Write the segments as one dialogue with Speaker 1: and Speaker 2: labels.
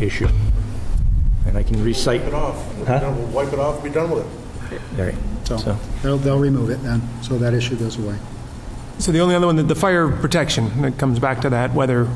Speaker 1: issue. And I can recite,
Speaker 2: Wipe it off.
Speaker 1: Huh?
Speaker 2: Done with- Wipe it off, be done with it.
Speaker 1: all right,
Speaker 3: So
Speaker 1: so,
Speaker 3: they'll, they'll remove it then, so that issue goes away.
Speaker 4: So the only other one, the- the fire protection, that comes back to that, whether,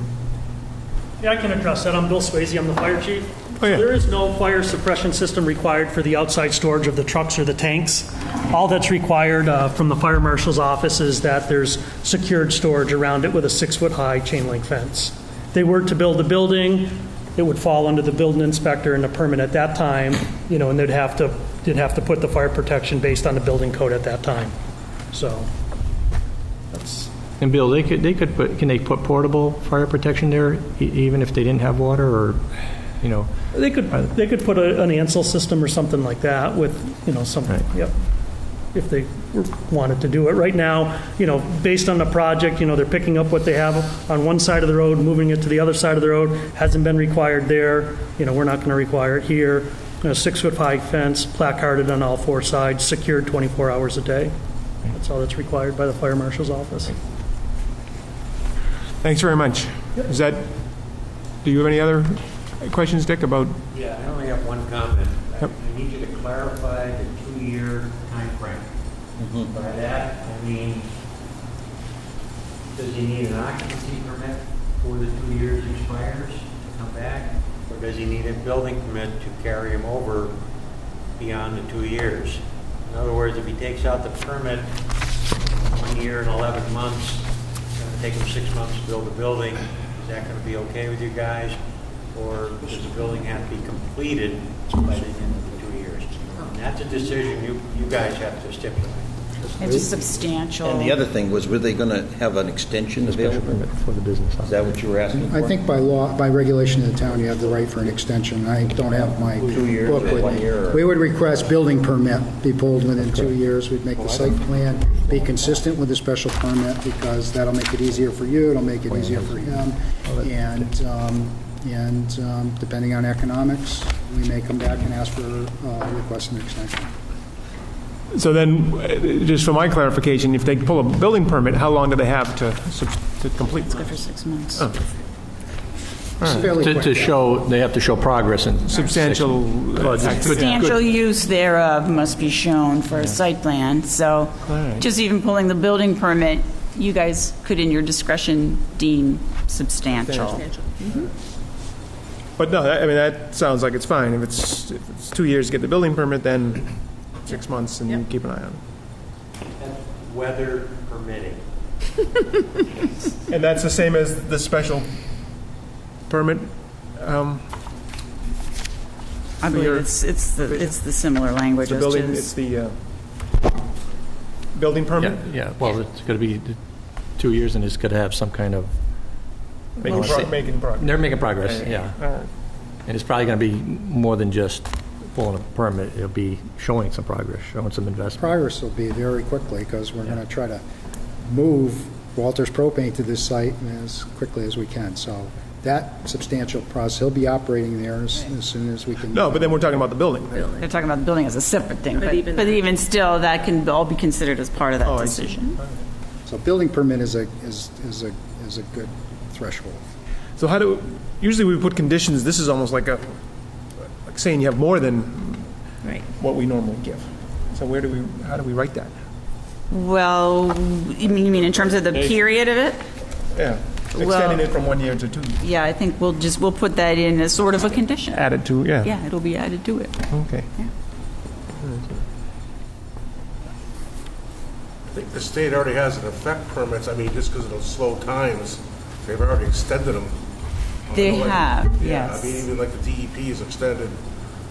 Speaker 5: Yeah, I can address that. I'm Bill Swayze, I'm the fire chief.
Speaker 4: Oh, yeah.
Speaker 5: There is no fire suppression system required for the outside storage of the trucks or the tanks. All that's required uh, from the fire marshal's office is that there's secured storage around it with a six-foot-high chain link fence. If They were to build a building, it would fall under the building inspector and the permit at that time, you know, and they'd have to, they'd have to put the fire protection based on the building code at that time. So, that's,
Speaker 1: and Bill, they could, they could, put can they put portable fire protection there, e- even if they didn't have water, or, you know?
Speaker 5: They could, they could put a- an ansel system or something like that with, you know, something,
Speaker 1: Right.
Speaker 5: yep, if they were- wanted to do it. Right now, you know, based on the project, you know, they're picking up what they have on one side of the road, moving it to the other side of the road, hasn't been required there, you know, we're not going to require it here. You know, six-foot-high fence, placarded on all four sides, secured 24 hours a day. That's all that's required by the fire marshal's office.
Speaker 4: thanks very much. Is that, do you have any other questions, Dick, about,
Speaker 6: Yeah, I only have one comment. I
Speaker 4: Yep.
Speaker 6: I need you to clarify the two-year timeframe. By that, I mean, does he need an occupancy permit before the two years expires to come back? Or does he need a building permit to carry him over beyond the two years? In other words, if he takes out the permit one year and 11 months, it's going to take him six months to build a building, is that going to be okay with you guys? Or does the building have to be completed by the end of the two years? And that's a decision you, you guys have to stipulate.
Speaker 7: It's a substantial.
Speaker 8: And the other thing was, were they going to have an extension
Speaker 1: Special
Speaker 8: available?
Speaker 1: permit for the business.
Speaker 8: Is that what you were asking for?
Speaker 3: I think by law, by regulation of the town, you have the right for an extension. I don't have my book
Speaker 8: Two years or one
Speaker 3: with
Speaker 8: year
Speaker 3: me.
Speaker 8: or-
Speaker 3: We would request building permit be pulled within two years. We'd make the site plan be consistent with the special permit because that'll make it easier for you, it'll make it easier for him. And, um, and um, depending on economics, we may come back and ask for, uh, request an extension.
Speaker 4: so then, uh, just for my clarification, if they pull a building permit, how long do they have to, subs- to complete?
Speaker 7: Good for six months.
Speaker 3: It's fairly
Speaker 9: Hmm. To
Speaker 3: quick.
Speaker 9: to show, they have to show progress and
Speaker 4: Substantial, uh,
Speaker 7: Substantial use thereof must be shown for a site plan, so just even pulling the building permit, you guys could in your discretion deem substantial.
Speaker 4: but no, that- I mean, that sounds like it's fine. If it's, if it's two years to get the building permit, then six months and you keep an eye on
Speaker 6: That's Weather permitting.
Speaker 4: it. And that's the same as the special permit? um,
Speaker 7: I believe
Speaker 4: your-
Speaker 7: it's, it's the, it's the similar language
Speaker 4: The
Speaker 7: as to
Speaker 4: building, it's the uh, building permit?
Speaker 9: Yeah, yeah, well, it's going to be th- two years and it's going to have some kind of,
Speaker 4: Making
Speaker 9: Well,
Speaker 4: pro- Making progress.
Speaker 9: they're making progress, yeah.
Speaker 4: All right.
Speaker 9: And it's probably going to be more than just pulling a permit, it'll be showing some progress, showing some investment.
Speaker 3: progress will be very quickly, because we're going to try to move Walters Propane to this site as quickly as we can. So that substantial process, he'll be operating there as as soon as we can.
Speaker 4: No, but then we're talking about the building.
Speaker 7: They're talking about the building as a separate thing, but, but even still, that can all be considered as part of that decision.
Speaker 3: So building permit is a, is, is a, is a good threshold.
Speaker 4: So how do, usually we put conditions, this is almost like a, like saying you have more than what we normally give. So where do we, how do we write that?
Speaker 7: Well, you mean, you mean in terms of the period of it?
Speaker 4: Yeah,
Speaker 7: Well-
Speaker 4: extending it from one year to two.
Speaker 7: Yeah, I think we'll just, we'll put that in as sort of a condition.
Speaker 4: Added to, yeah,
Speaker 7: Yeah, it'll be added to it.
Speaker 4: okay.
Speaker 2: I think the state already has an effect permits, I mean, just because of those slow times, they've already extended them.
Speaker 7: They
Speaker 2: Like-
Speaker 7: have,
Speaker 2: Yeah, I mean,
Speaker 7: yes.
Speaker 2: even like the DEP is extended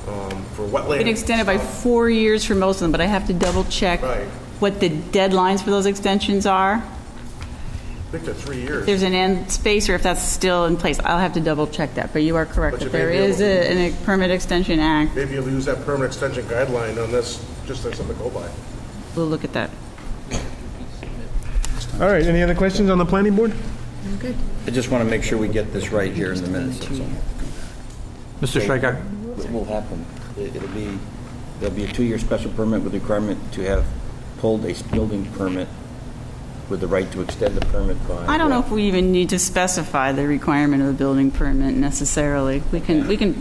Speaker 2: um, for wetland.
Speaker 7: Been extended by four years for most of them, but I have to double check
Speaker 2: Right.
Speaker 7: what the deadlines for those extensions are.
Speaker 2: I think they're three
Speaker 7: If
Speaker 2: years.
Speaker 7: there's an end space or if that's still in place. I'll have to double check that, but you are
Speaker 2: But
Speaker 7: correct that
Speaker 2: you may
Speaker 7: there
Speaker 2: be able
Speaker 7: is a, an- a permit extension act.
Speaker 2: Maybe you'll use that permanent extension guideline on this, just as something to go by.
Speaker 7: We'll look at that.
Speaker 4: All right, any other questions on the planning board?
Speaker 8: I just want to make sure we get this right here in the minutes. that's all.
Speaker 9: Mr. Striker,
Speaker 8: What will happen? It- It'll be, there'll be a two-year special permit with requirement to have pulled a building permit with the right to extend the permit by. uh,
Speaker 7: I don't know if we even need to specify the requirement of a building permit necessarily. We can, we can